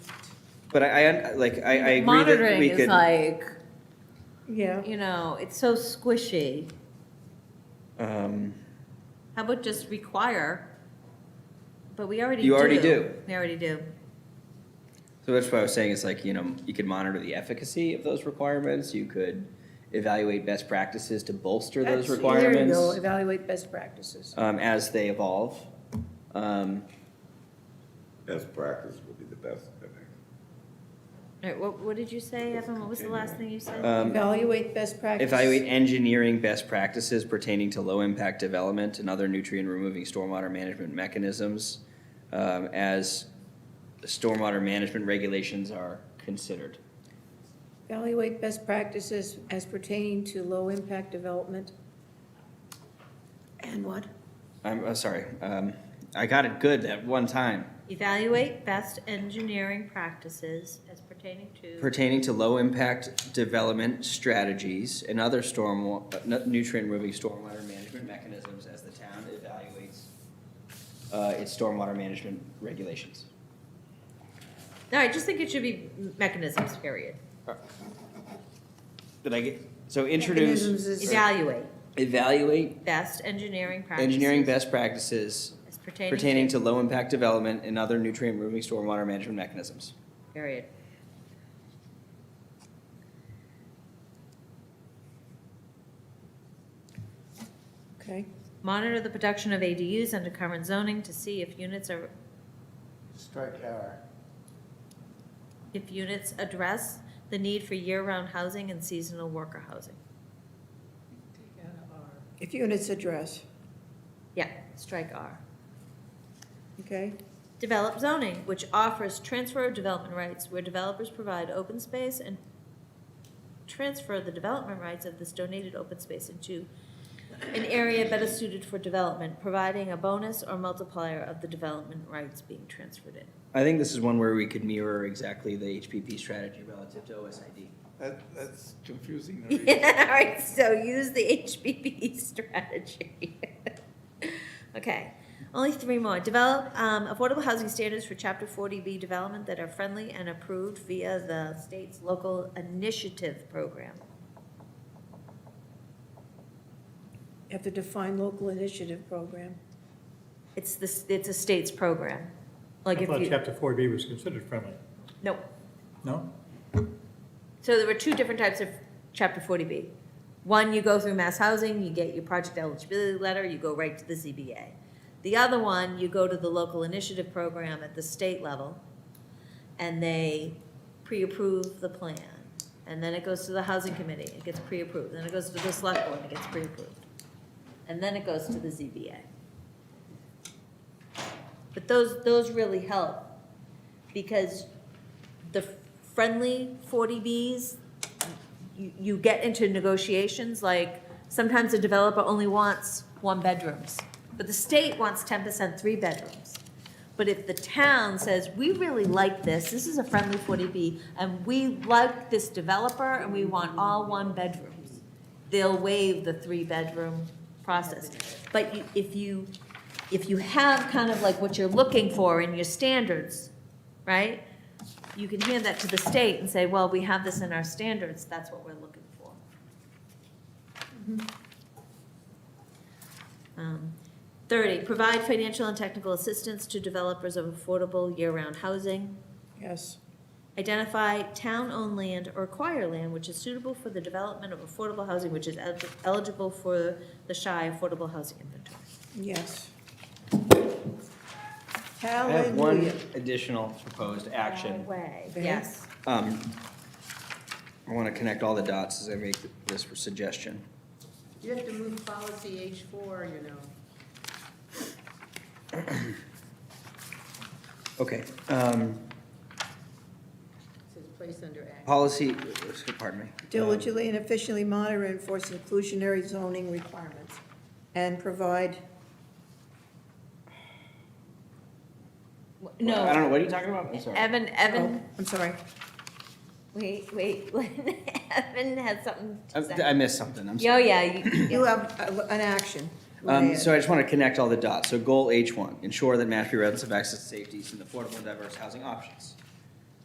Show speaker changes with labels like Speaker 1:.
Speaker 1: But I, I, un- like, I, I agree that
Speaker 2: Monitoring
Speaker 1: we
Speaker 2: is
Speaker 1: could,
Speaker 2: like,
Speaker 3: Yeah.
Speaker 2: you know, it's so squishy.
Speaker 1: um,
Speaker 2: How about just require? But we already do.
Speaker 1: You already do.
Speaker 2: We already do.
Speaker 1: so that's what I was saying, is like, you know, you could monitor the efficacy of those requirements, you could evaluate best practices to bolster those
Speaker 3: That's- There you go,
Speaker 1: requirements,
Speaker 3: evaluate best practices.
Speaker 1: um, as they evolve. Um,
Speaker 4: Best practice would be the best, I think.
Speaker 2: All right, what, what did you say, Evan? What was the last thing you said?
Speaker 1: um,
Speaker 3: Evaluate best practice.
Speaker 1: Evaluate engineering best practices pertaining to low-impact development and other nutrient-removing stormwater management mechanisms um, as stormwater management regulations are considered.
Speaker 3: Evaluate best practices as pertaining to low-impact development. And what?
Speaker 1: I'm uh, sorry, um, I got it good that one time.
Speaker 2: Evaluate best engineering practices as pertaining to.
Speaker 1: Pertaining to low-impact development strategies and other storm, uh, nutrient-removing stormwater management mechanisms as the town evaluates uh, its stormwater management regulations.
Speaker 2: No, I just think it should be mechanisms, period.
Speaker 1: Did I get, so introduce,
Speaker 3: Mechanisms is-
Speaker 2: Evaluate
Speaker 1: evaluate
Speaker 2: best engineering practices.
Speaker 1: engineering best practices
Speaker 2: As pertaining to.
Speaker 1: pertaining to low-impact development and other nutrient-removing stormwater management mechanisms.
Speaker 2: Period.
Speaker 3: Okay.
Speaker 2: Monitor the production of ADUs under current zoning to see if units are,
Speaker 5: Strike our
Speaker 2: if units address the need for year-round housing and seasonal worker housing.
Speaker 3: If units address,
Speaker 2: Yeah, strike R.
Speaker 3: okay?
Speaker 2: Develop zoning, which offers transfer of development rights where developers provide open space and transfer the development rights of this donated open space into an area better suited for development, providing a bonus or multiplier of the development rights being transferred in.
Speaker 1: I think this is one where we could mirror exactly the HPP strategy relative to OSID.
Speaker 5: That, that's confusing. to read.
Speaker 2: All right, so use the HBP strategy. Okay, only three more. Develop um, affordable housing standards for Chapter 40B development that are friendly and approved via the state's local initiative program.
Speaker 3: You have to define local initiative program.
Speaker 2: It's the, s- it's a state's program. Like
Speaker 6: I
Speaker 2: if
Speaker 6: thought
Speaker 2: you,
Speaker 6: chapter four B was considered friendly.
Speaker 2: no,
Speaker 6: No?
Speaker 2: so there were two different types of Chapter 40B. One, you go through mass housing, you get your project eligibility letter, you go right to the ZBA. The other one, you go to the local initiative program at the state level, and they pre-approve the plan. And then it goes to the housing committee, it gets pre-approved, then it goes to the select board, it gets pre-approved. And then it goes to the ZBA. But those, those really help, because the friendly forty Bs, you, you get into negotiations, like, sometimes a developer only wants one bedrooms, but the state wants ten percent three bedrooms. But if the town says, we really like this, this is a friendly forty B, and we like this developer, and we want all one bedrooms, they'll waive the three-bedroom process. But you, if you, if you have kind of like what you're looking for in your standards, right? You can hand that to the state and say, well, we have this in our standards, that's what we're looking for. Um, Thirty, provide financial and technical assistance to developers of affordable year-round housing.
Speaker 3: Yes.
Speaker 2: Identify town-owned land or acquire land which is suitable for the development of affordable housing, which is el- eligible for the Shire Affordable Housing Inventory.
Speaker 3: Yes.
Speaker 1: I have one
Speaker 3: Hallelujah.
Speaker 1: additional proposed action.
Speaker 2: Way,
Speaker 3: Very.
Speaker 2: yes.
Speaker 1: Um, I want to connect all the dots as I make this suggestion.
Speaker 7: You have to move policy H four, you know.
Speaker 1: Okay, um,
Speaker 7: It says place under act.
Speaker 1: policy, pardon me. Um,
Speaker 3: Diligently and efficiently monitor and enforce inclusionary zoning requirements and provide,
Speaker 1: I don't
Speaker 2: No,
Speaker 1: know, what are you talking about? I'm sorry.
Speaker 2: Evan,
Speaker 3: oh,
Speaker 2: Evan,
Speaker 3: I'm sorry.
Speaker 2: wait, wait, Evan had something to
Speaker 1: I I
Speaker 2: say.
Speaker 1: missed something, I'm sorry.
Speaker 2: Oh, yeah, you-
Speaker 3: You have a- an action.
Speaker 1: Um,
Speaker 3: Leanne.
Speaker 1: so I just want to connect all the dots. So goal H one, ensure that Mashpee residents have access to safety and affordable and diverse housing options.